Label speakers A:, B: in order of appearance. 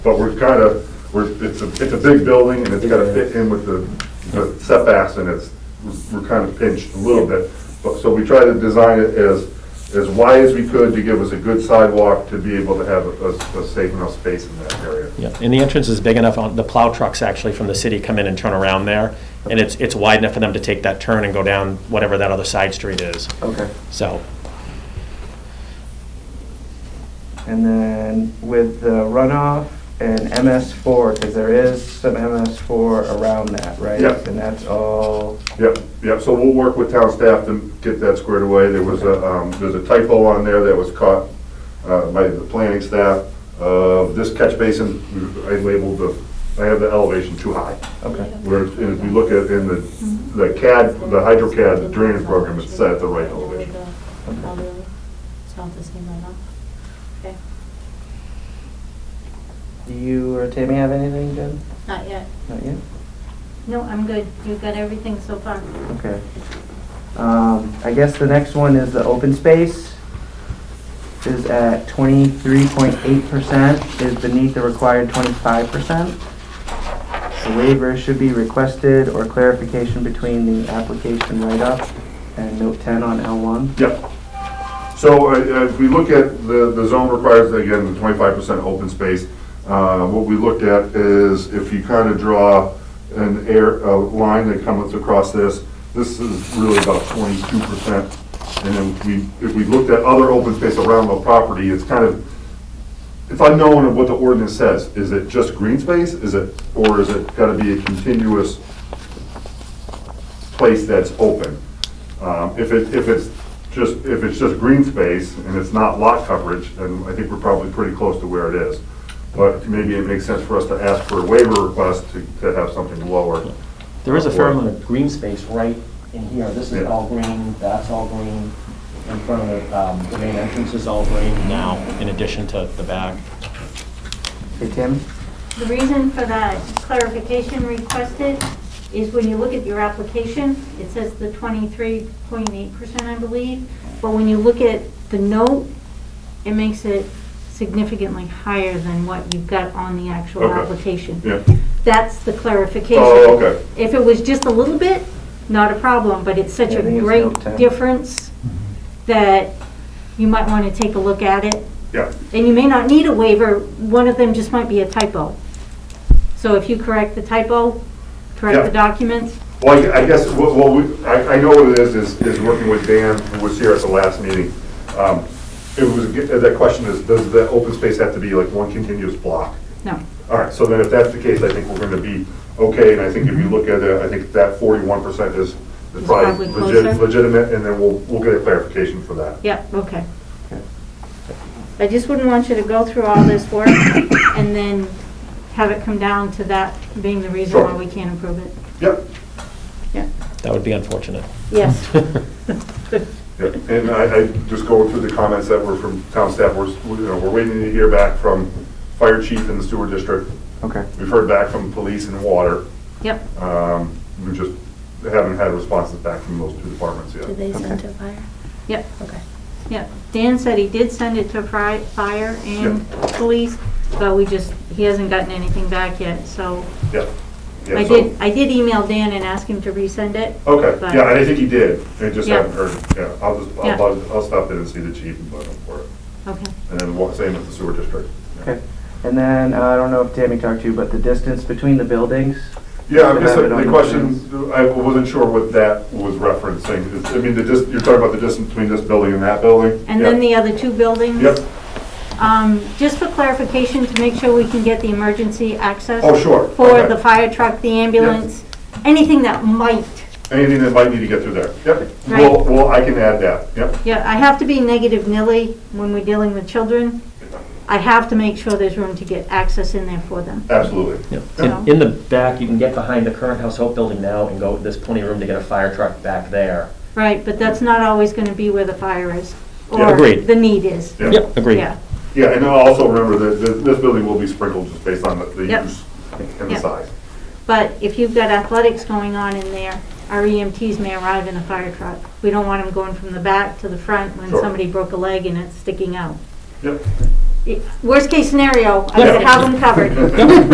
A: But we're kind of, we're, it's a, it's a big building and it's got to fit in with the the setbacks and it's, we're kind of pinched a little bit. But, so we try to design it as, as wide as we could to give us a good sidewalk to be able to have a, a safe enough space in that area.
B: Yeah, and the entrance is big enough, on- the plow trucks actually from the city come in and turn around there, and it's, it's wide enough for them to take that turn and go down whatever that other side street is,
C: Okay,
B: so.
C: and then with the runoff and MS four, because there is some MS four around that, right?
A: Yeah.
C: And that's all,
A: Yep, yep, so we'll work with town staff to get that squared away. There was a, um, there's a typo on there that was caught, uh, by the planning staff. Uh, this catch basin, I labeled the, I have the elevation too high.
C: okay,
A: Where, and if you look at, in the, the CAD, the HydroCAD, the drainage program is set at the right elevation.
D: It's not the same right now. Okay,
C: do you or Tammy have anything, Jen?
D: not yet.
C: Not yet?
D: No, I'm good. You've got everything so far.
C: Okay. Um, I guess the next one is the open space. Is at twenty-three point eight percent, is beneath the required twenty-five percent. The waiver should be requested or clarification between the application write-up and note ten on L one.
A: Yep. So uh, uh, if we look at, the, the zone requires, again, the twenty-five percent open space. Uh, What we looked at is if you kind of draw an air, a line that comes across this, this is really about twenty-two percent. And then we, if we looked at other open space around the property, it's kind of, it's unknown of what the ordinance says. Is it just green space? Is it, or is it gotta be a continuous place that's open. Um, If it, if it's just, if it's just green space and it's not lot coverage, then I think we're probably pretty close to where it is. But maybe it makes sense for us to ask for a waiver request to, to have something lower.
B: There is a fair
A: fair
B: amount
A: amount
B: of
E: green space right in here. This is
A: Yeah.
E: all green, that's all green. In front of the, um, the main entrance is all green.
B: now, in addition to the back.
C: Hey, Tim?
D: The reason for that clarification requested is when you look at your application, it says the twenty-three point eight percent, I believe. But when you look at the note, it makes it significantly higher than what you've got on the actual
A: Okay.
D: application.
A: Yeah,
D: That's the clarification.
A: Oh, okay.
D: If it was just a little bit, not a problem, but it's such
C: Yeah,
D: a
C: I think it's
D: great
C: about 10.
D: difference that you might want to take a look at it.
A: yeah,
D: And you may not need a waiver, one of them just might be a typo. So if you correct the typo, correct
A: Yeah.
D: the documents,
A: Well, I I guess, what, what we, I, I know what it is, is, is working with Dan, who was here at the last meeting. Um, It was, that question is, does the open space have to be like one continuous block?
D: no.
A: All right, so then if that's the case, I think we're gonna be okay, and I think if
D: Mm-hmm.
A: you look at it, I think that forty-one percent is is
D: It's
A: probably
D: probably
A: legit-
D: closer.
A: legitimate, and then we'll, we'll get a clarification for that.
D: Yeah, okay.
C: Okay.
D: I just wouldn't want you to go through all this work and then have it come down to that being the reason why
A: Sure.
D: we can't approve it.
A: Yep,
D: Yeah,
B: That would be unfortunate.
D: yes.
A: yep, and I, I, just going through the comments that were from town staff, we're, s- we- you know, we're waiting to hear back from fire chief in the sewer district.
C: Okay.
A: We've heard back from police and water,
D: Yep.
A: um, we just haven't had responses back from those two departments yet.
F: Did they
C: Okay.
F: send to fire?
D: Yep,
F: Okay.
D: yep. Dan said he did send it to fri- fire and police, but we just, he hasn't gotten anything back yet, so.
A: Yep. Yeah,
D: I
A: so- Oh.
D: did, I did email Dan and ask him to resend it.
A: Okay,
D: but-
A: yeah, and I think he did, I just
D: Yeah.
A: haven't heard, yeah, I'll just,
D: Yeah.
A: I'll, bug- I'll stop in and see the chief and bug him for it.
D: Okay.
A: And then wa- same with the sewer district. yeah.
C: Okay, and then, uh, I don't know if Tammy talked to you, but the distance between the buildings?
A: Yeah, I
C: They
A: guess
C: have it
A: the
C: on
A: the
C: the
A: question, I wasn't sure what that was referencing, It's- I mean, the dis, you're talking about the distance between this building and that building?
D: And then the
A: Yeah.
D: other two buildings?
A: Yep,
D: Um, just for clarification, to make sure we can get the emergency access.
A: Oh, sure.
D: For
A: Okay.
D: the fire truck, the ambulance, anything that might.
A: anything that might need to get through there, yep,
D: Right.
A: well, well, I can add that, yep,
D: Yeah, I have to be negative nilly when we're dealing with children. I have to make sure there's room to get access in there for them.
A: absolutely.
B: Yeah.
E: In, in the back, you can get behind the current House Hope building now and go, there's plenty of room to get a fire truck back there.
D: Right, but that's not always gonna be where the fire is.
A: Yeah.
D: or
B: Agreed.
D: The need is.
A: Yeah.
B: Yep, agreed.
D: Yeah,
A: Yeah, and then also remember that th- this building will be sprinkled just based on the- the
D: Yep.
A: use and the
D: Yep.
A: size.
D: but if you've got athletics going on in there, our EMTs may arrive in a fire truck. We don't want them going from the back to the front when
A: Sure.
D: somebody broke a leg and it's sticking out.
A: Yep,
D: Worst case scenario, I would have them covered.